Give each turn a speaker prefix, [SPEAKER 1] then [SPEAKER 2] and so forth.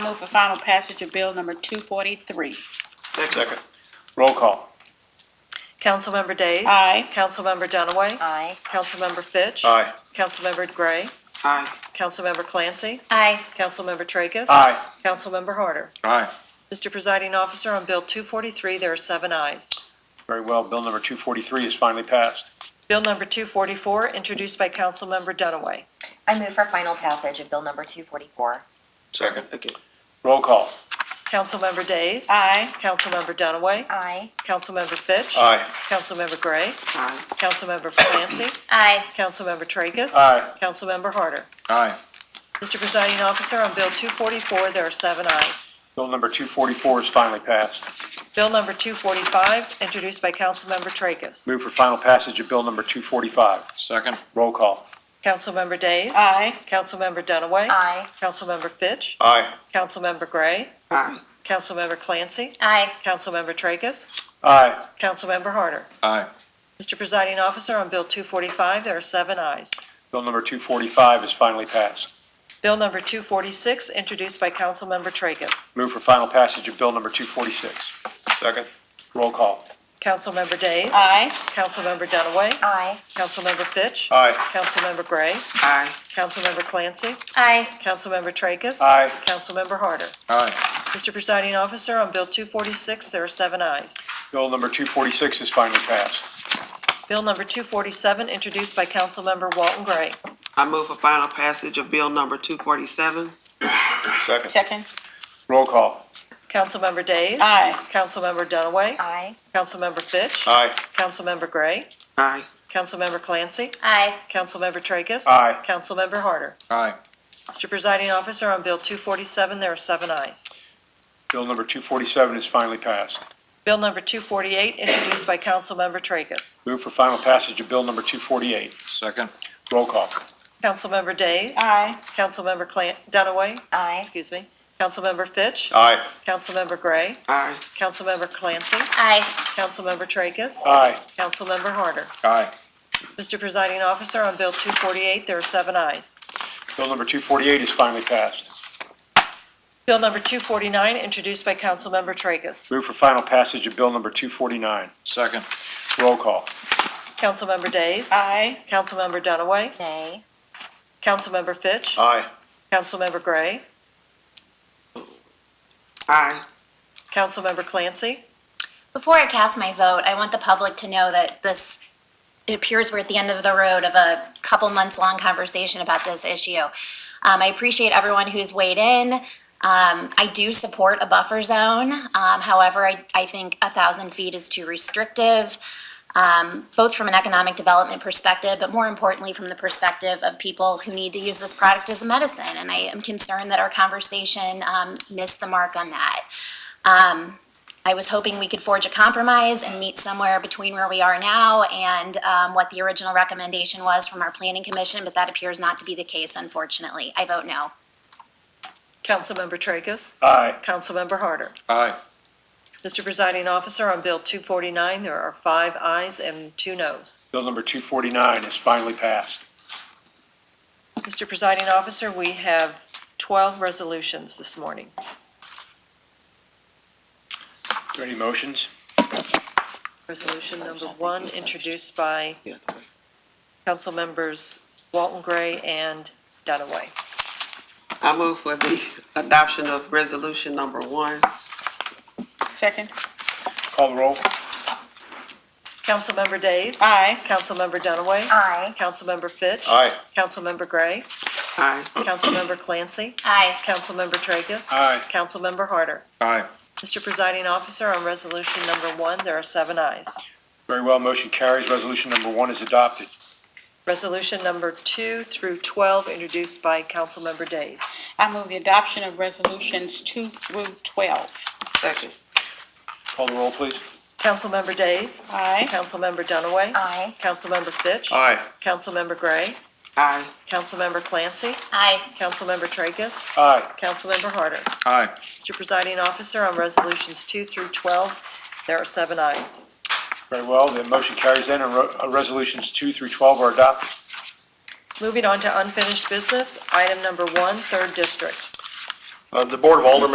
[SPEAKER 1] move for final passage of bill number two forty-three.
[SPEAKER 2] Second.
[SPEAKER 3] Roll call.
[SPEAKER 4] Councilmember Days.
[SPEAKER 1] Aye.
[SPEAKER 4] Councilmember Dunaway.
[SPEAKER 5] Aye.
[SPEAKER 4] Councilmember Fitch.
[SPEAKER 2] Aye.
[SPEAKER 4] Councilmember Gray.
[SPEAKER 2] Aye.
[SPEAKER 4] Councilmember Clancy.
[SPEAKER 5] Aye.
[SPEAKER 4] Councilmember Tracus.
[SPEAKER 3] Aye.
[SPEAKER 4] Councilmember Harder.
[SPEAKER 2] Aye.
[SPEAKER 4] Mr. Presiding Officer, on Bill 243, there are seven ayes.
[SPEAKER 3] Very well, bill number 243 is finally passed.
[SPEAKER 4] Bill number 244, introduced by Councilmember Dunaway.
[SPEAKER 5] I move for final passage of bill number two forty-four.
[SPEAKER 2] Second.
[SPEAKER 3] Roll call.
[SPEAKER 4] Councilmember Days.
[SPEAKER 1] Aye.
[SPEAKER 4] Councilmember Dunaway.
[SPEAKER 5] Aye.
[SPEAKER 4] Councilmember Fitch.
[SPEAKER 2] Aye.
[SPEAKER 4] Councilmember Gray.
[SPEAKER 2] Aye.
[SPEAKER 4] Councilmember Clancy.
[SPEAKER 5] Aye.
[SPEAKER 4] Councilmember Tracus.
[SPEAKER 3] Aye.
[SPEAKER 4] Councilmember Harder.
[SPEAKER 2] Aye.
[SPEAKER 4] Mr. Presiding Officer, on Bill 244, there are seven ayes.
[SPEAKER 3] Bill number 244 is finally passed.
[SPEAKER 4] Bill number 245, introduced by Councilmember Tracus.
[SPEAKER 3] Move for final passage of bill number 245.
[SPEAKER 2] Second.
[SPEAKER 3] Roll call.
[SPEAKER 4] Councilmember Days.
[SPEAKER 1] Aye.
[SPEAKER 4] Councilmember Dunaway.
[SPEAKER 5] Aye.
[SPEAKER 4] Councilmember Fitch.
[SPEAKER 2] Aye.
[SPEAKER 4] Councilmember Gray.
[SPEAKER 2] Aye.
[SPEAKER 4] Councilmember Clancy.
[SPEAKER 5] Aye.
[SPEAKER 4] Councilmember Tracus.
[SPEAKER 3] Aye.
[SPEAKER 4] Councilmember Harder.
[SPEAKER 2] Aye.
[SPEAKER 4] Mr. Presiding Officer, on Bill 245, there are seven ayes.
[SPEAKER 3] Bill number 245 is finally passed.
[SPEAKER 4] Bill number 246, introduced by Councilmember Tracus.
[SPEAKER 3] Move for final passage of bill number 246.
[SPEAKER 2] Second.
[SPEAKER 3] Roll call.
[SPEAKER 4] Councilmember Days.
[SPEAKER 1] Aye.
[SPEAKER 4] Councilmember Dunaway.
[SPEAKER 5] Aye.
[SPEAKER 4] Councilmember Fitch.
[SPEAKER 2] Aye.
[SPEAKER 4] Councilmember Gray.
[SPEAKER 2] Aye.
[SPEAKER 4] Councilmember Clancy.
[SPEAKER 5] Aye.
[SPEAKER 4] Councilmember Tracus.
[SPEAKER 3] Aye.
[SPEAKER 4] Councilmember Harder.
[SPEAKER 2] Aye.
[SPEAKER 4] Mr. Presiding Officer, on Bill 246, there are seven ayes.
[SPEAKER 3] Bill number 246 is finally passed.
[SPEAKER 4] Bill number 247, introduced by Councilmember Walton Gray.
[SPEAKER 6] I move for final passage of bill number two forty-seven.
[SPEAKER 2] Second.
[SPEAKER 1] Second.
[SPEAKER 3] Roll call.
[SPEAKER 4] Councilmember Days.
[SPEAKER 1] Aye.
[SPEAKER 4] Councilmember Dunaway.
[SPEAKER 5] Aye.
[SPEAKER 4] Councilmember Fitch.
[SPEAKER 2] Aye.
[SPEAKER 4] Councilmember Gray.
[SPEAKER 6] Aye.
[SPEAKER 4] Councilmember Clancy.
[SPEAKER 5] Aye.
[SPEAKER 4] Councilmember Tracus.
[SPEAKER 3] Aye.
[SPEAKER 4] Councilmember Harder.
[SPEAKER 2] Aye.
[SPEAKER 4] Mr. Presiding Officer, on Bill 247, there are seven ayes.
[SPEAKER 3] Bill number 247 is finally passed.
[SPEAKER 4] Bill number 248, introduced by Councilmember Tracus.
[SPEAKER 3] Move for final passage of bill number 248.
[SPEAKER 2] Second.
[SPEAKER 3] Roll call.
[SPEAKER 4] Councilmember Days.
[SPEAKER 1] Aye.
[SPEAKER 4] Councilmember Clan, Dunaway,
[SPEAKER 5] Aye.
[SPEAKER 4] excuse me. Councilmember Fitch.
[SPEAKER 2] Aye.
[SPEAKER 4] Councilmember Gray.
[SPEAKER 6] Aye.
[SPEAKER 4] Councilmember Clancy.
[SPEAKER 5] Aye.
[SPEAKER 4] Councilmember Tracus.
[SPEAKER 3] Aye.
[SPEAKER 4] Councilmember Harder.
[SPEAKER 2] Aye.
[SPEAKER 4] Mr. Presiding Officer, on Bill 248, there are seven ayes.
[SPEAKER 3] Bill number 248 is finally passed.
[SPEAKER 4] Bill number 249, introduced by Councilmember Tracus.
[SPEAKER 3] Move for final passage of bill number 249.
[SPEAKER 2] Second.
[SPEAKER 3] Roll call.
[SPEAKER 4] Councilmember Days.
[SPEAKER 1] Aye.
[SPEAKER 4] Councilmember Dunaway.
[SPEAKER 5] Nay.
[SPEAKER 4] Councilmember Fitch.
[SPEAKER 2] Aye.
[SPEAKER 4] Councilmember Gray.
[SPEAKER 6] Aye.
[SPEAKER 4] Councilmember Clancy.
[SPEAKER 7] Before I cast my vote, I want the public to know that this, it appears we're at the end of the road of a couple months long conversation about this issue. Um, I appreciate everyone who's weighed in. Um, I do support a buffer zone. Um, however, I, I think a thousand feet is too restrictive, um, both from an economic development perspective, but more importantly, from the perspective of people who need to use this product as a medicine. And I am concerned that our conversation, um, missed the mark on that. Um, I was hoping we could forge a compromise and meet somewhere between where we are now and um, what the original recommendation was from our planning commission, but that appears not to be the case, unfortunately. I vote no.
[SPEAKER 4] Councilmember Tracus.
[SPEAKER 3] Aye.
[SPEAKER 4] Councilmember Harder.
[SPEAKER 2] Aye.
[SPEAKER 4] Mr. Presiding Officer, on Bill 249, there are five ayes and two noes.
[SPEAKER 3] Bill number 249 is finally passed.
[SPEAKER 4] Mr. Presiding Officer, we have 12 resolutions this morning.
[SPEAKER 3] Are there any motions?
[SPEAKER 4] Resolution number one, introduced by Council Members Walton Gray and Dunaway.
[SPEAKER 6] I move for the adoption of resolution number one.
[SPEAKER 1] Second.
[SPEAKER 3] Call the roll.
[SPEAKER 4] Councilmember Days.
[SPEAKER 1] Aye.
[SPEAKER 4] Councilmember Dunaway.
[SPEAKER 5] Aye.
[SPEAKER 4] Councilmember Fitch.
[SPEAKER 2] Aye.
[SPEAKER 4] Councilmember Gray.
[SPEAKER 6] Aye.
[SPEAKER 4] Councilmember Clancy.
[SPEAKER 7] Aye.
[SPEAKER 4] Councilmember Tracus.
[SPEAKER 3] Aye.
[SPEAKER 4] Councilmember Harder.
[SPEAKER 2] Aye.
[SPEAKER 4] Mr. Presiding Officer, on resolution number one, there are seven ayes.
[SPEAKER 3] Very well, motion carries. Resolution number one is adopted.
[SPEAKER 4] Resolution number two through 12, introduced by Councilmember Days.
[SPEAKER 1] I move the adoption of resolutions two through twelve.
[SPEAKER 6] Second.
[SPEAKER 3] Call the roll, please.
[SPEAKER 4] Councilmember Days.
[SPEAKER 1] Aye.
[SPEAKER 4] Councilmember Dunaway.
[SPEAKER 5] Aye.
[SPEAKER 4] Councilmember Fitch.
[SPEAKER 2] Aye.
[SPEAKER 4] Councilmember Gray.
[SPEAKER 6] Aye.
[SPEAKER 4] Councilmember Clancy.
[SPEAKER 7] Aye.
[SPEAKER 4] Councilmember Tracus.
[SPEAKER 3] Aye.
[SPEAKER 4] Councilmember Harder.
[SPEAKER 2] Aye.
[SPEAKER 4] Mr. Presiding Officer, on resolutions two through 12, there are seven ayes.
[SPEAKER 3] Very well, the motion carries then, and ro- uh, resolutions two through 12 are adopted.
[SPEAKER 4] Moving on to unfinished business, item number one, third district.
[SPEAKER 2] Uh, The Board of Aldermen